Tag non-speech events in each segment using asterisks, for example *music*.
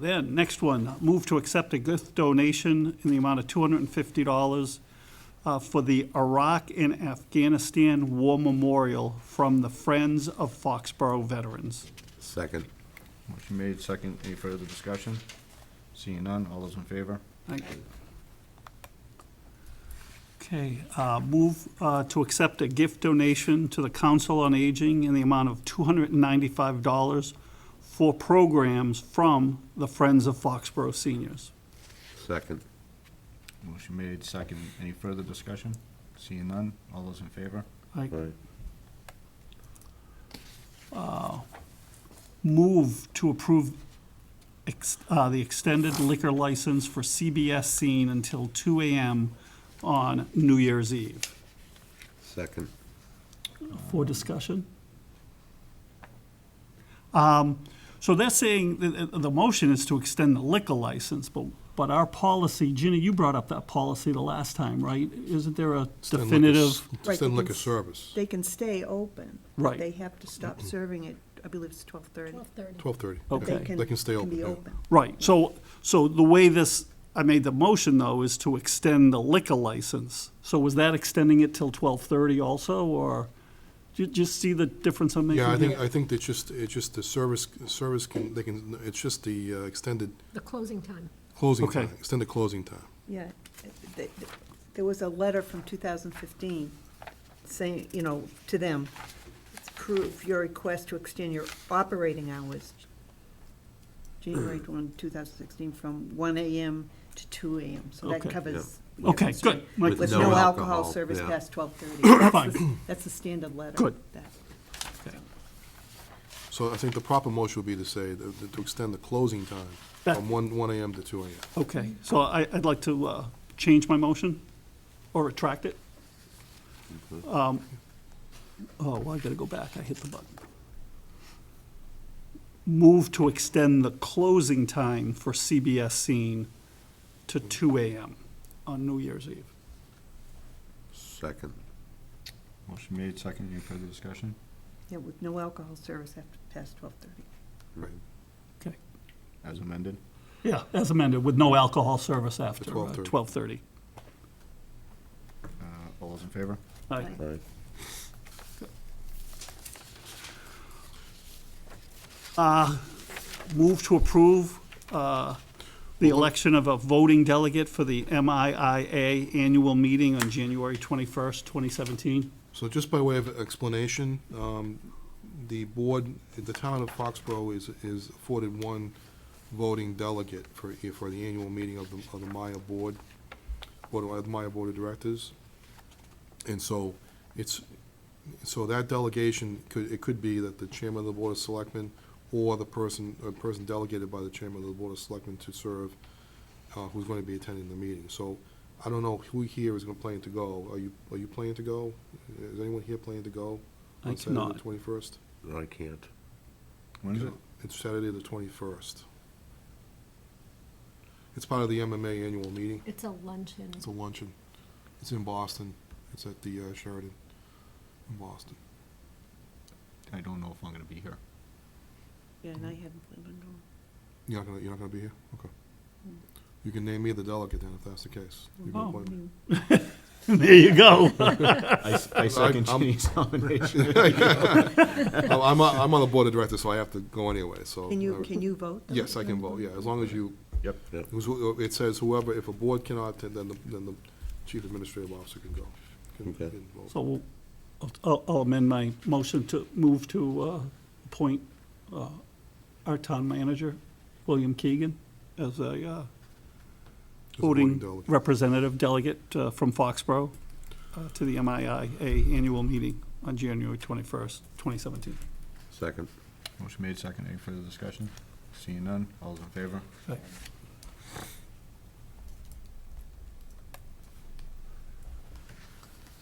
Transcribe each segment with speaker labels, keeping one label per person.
Speaker 1: Then, next one, move to accept a gift donation in the amount of $250 uh, for the Iraq and Afghanistan War Memorial from the Friends of Foxborough Veterans.
Speaker 2: Second.
Speaker 3: Motion made, second. Any further discussion? Seeing none, all those in favor?
Speaker 1: Thank you. Okay, uh, move uh, to accept a gift donation to the Council on Aging in the amount of $295 for programs from the Friends of Foxborough Seniors.
Speaker 2: Second.
Speaker 3: Motion made, second. Any further discussion? Seeing none, all those in favor?
Speaker 1: I
Speaker 2: Right.
Speaker 1: move to approve ex- uh, the extended liquor license for CBS Scene until 2 AM on New Year's Eve.
Speaker 2: Second.
Speaker 1: For discussion? Um, So they're saying, that the, the motion is to extend the liquor license, but, but our policy, Ginny, you brought up that policy the last time, right? Isn't there a
Speaker 4: Extend liquor s-
Speaker 1: definitive?
Speaker 4: Extend
Speaker 5: Right, they
Speaker 4: liquor
Speaker 5: can s-
Speaker 4: service,
Speaker 5: They can stay open.
Speaker 1: Right.
Speaker 5: They have to stop serving at, I believe it's twelve thirty.
Speaker 4: twelve thirty.
Speaker 1: Okay.
Speaker 4: They can stay open,
Speaker 5: Can be
Speaker 4: yeah.
Speaker 5: open.
Speaker 1: Right, so, so the way this, I made the motion though, is to extend the liquor license. So was that extending it till twelve-thirty also, or, do you just see the difference I'm making?
Speaker 4: Yeah, I
Speaker 1: here?
Speaker 4: think, I think it's just, it's just the service, service can, they can, it's just the uh, extended
Speaker 6: The closing time.
Speaker 4: closing
Speaker 1: Okay.
Speaker 4: time, extended closing time.
Speaker 5: Yeah. Th- th- There was a letter from two thousand fifteen saying, you know, to them, it's proof your request to extend your operating hours, January
Speaker 1: Mm.
Speaker 5: one, two thousand sixteen, from one AM to two AM. So that
Speaker 1: Okay.
Speaker 5: covers.
Speaker 1: Yeah. Okay,
Speaker 5: yes,
Speaker 1: good. My-
Speaker 5: With no alcohol service
Speaker 2: yeah.
Speaker 5: past twelve thirty.
Speaker 1: *coughs* Fine.
Speaker 5: That's the standard letter.
Speaker 1: Good.
Speaker 5: that-
Speaker 4: So I think the proper motion would be to say, that- to extend the closing time
Speaker 1: That-
Speaker 4: from one, one AM to two AM.
Speaker 1: Okay, so I, I'd like to uh, change my motion or retract it. Um, Oh, well, I gotta go back, I hit the button. Move to extend the closing time for CBS Scene to two AM on New Year's Eve.
Speaker 2: Second.
Speaker 3: Motion made, second. Any further discussion?
Speaker 5: Yeah, with no alcohol service after, past twelve thirty.
Speaker 2: Right.
Speaker 1: Okay.
Speaker 3: As amended?
Speaker 1: Yeah, as amended, with no alcohol service after
Speaker 4: 12:30.
Speaker 1: twelve-thirty.
Speaker 3: Uh, All those in favor?
Speaker 1: Aye.
Speaker 2: Right.
Speaker 1: Move to approve uh, the election of a voting delegate for the MIIA annual meeting on January 21st, 2017.
Speaker 4: So just by way of explanation, um, the board, the town of Foxborough is, is afforded one voting delegate for, for the annual meeting of the, of the Maya Board, Board of, the Maya Board of Directors. And so it's, so that delegation could, it could be that the chairman of the Board of Selectmen or the person, a person delegated by the chairman of the Board of Selectmen to serve, uh, who's going to be attending the meeting. So I don't know who here is going to plan to go. Are you, are you planning to go? Is anyone here planning to go?
Speaker 1: I
Speaker 4: on Saturday
Speaker 1: cannot.
Speaker 4: the twenty-first?
Speaker 2: I can't.
Speaker 3: When is it?
Speaker 4: It's Saturday the twenty-first. It's part of the MMA annual meeting.
Speaker 6: It's a luncheon.
Speaker 4: It's a luncheon. It's in Boston. It's at the uh, Sheridan in Boston.
Speaker 3: I don't know if I'm gonna be here.
Speaker 5: Yeah, and I haven't planned on going.
Speaker 4: You're not gonna, you're not gonna be here? Okay.
Speaker 5: Mm.
Speaker 4: You can name me the delegate then, if that's the case. You can
Speaker 1: Oh.
Speaker 4: appoint
Speaker 5: *laughs*
Speaker 4: me.
Speaker 1: *laughs* There you go.
Speaker 3: I s- *laughs* I second
Speaker 4: I'm-
Speaker 3: Ginny's nomination.
Speaker 4: I'm, I'm on- I'm on the board of directors, so I have to go anyway, so.
Speaker 5: Can
Speaker 4: I-
Speaker 5: you, can you vote? though?
Speaker 4: Yes, I can vote, yeah, as long as you,
Speaker 3: Yep.
Speaker 2: Yep.
Speaker 4: who's- who- uh, it says whoever, if a board cannot attend, then the, then the chief administrative officer can go. can-
Speaker 2: Okay.
Speaker 4: can vote.
Speaker 1: So we'll- I'll I'll amend my motion to move to uh, appoint uh, our town manager, William Keegan, as a uh,
Speaker 4: As a voting
Speaker 1: voting
Speaker 4: delegate.
Speaker 1: representative delegate uh, from Foxborough uh, to the MIIA annual meeting on January 21st, 2017.
Speaker 2: Second.
Speaker 3: *laughs* Motion made, second. Any further discussion? Seeing none, all those in favor?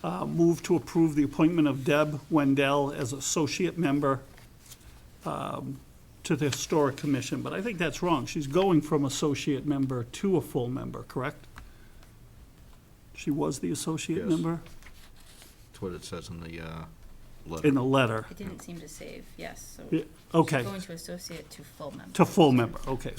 Speaker 1: Uh, Move to approve the appointment of Deb Wendell as associate member um, to the Historic Commission, but I think that's wrong. She's going from associate member to a full member, correct? She was the associate
Speaker 3: Yes.
Speaker 1: member
Speaker 3: That's what it says in the uh,
Speaker 1: in
Speaker 3: letter.
Speaker 1: the letter.
Speaker 7: It didn't seem to save, yes, so.
Speaker 1: Yeah, Okay,
Speaker 7: Going to associate to full member.
Speaker 1: to full member, okay.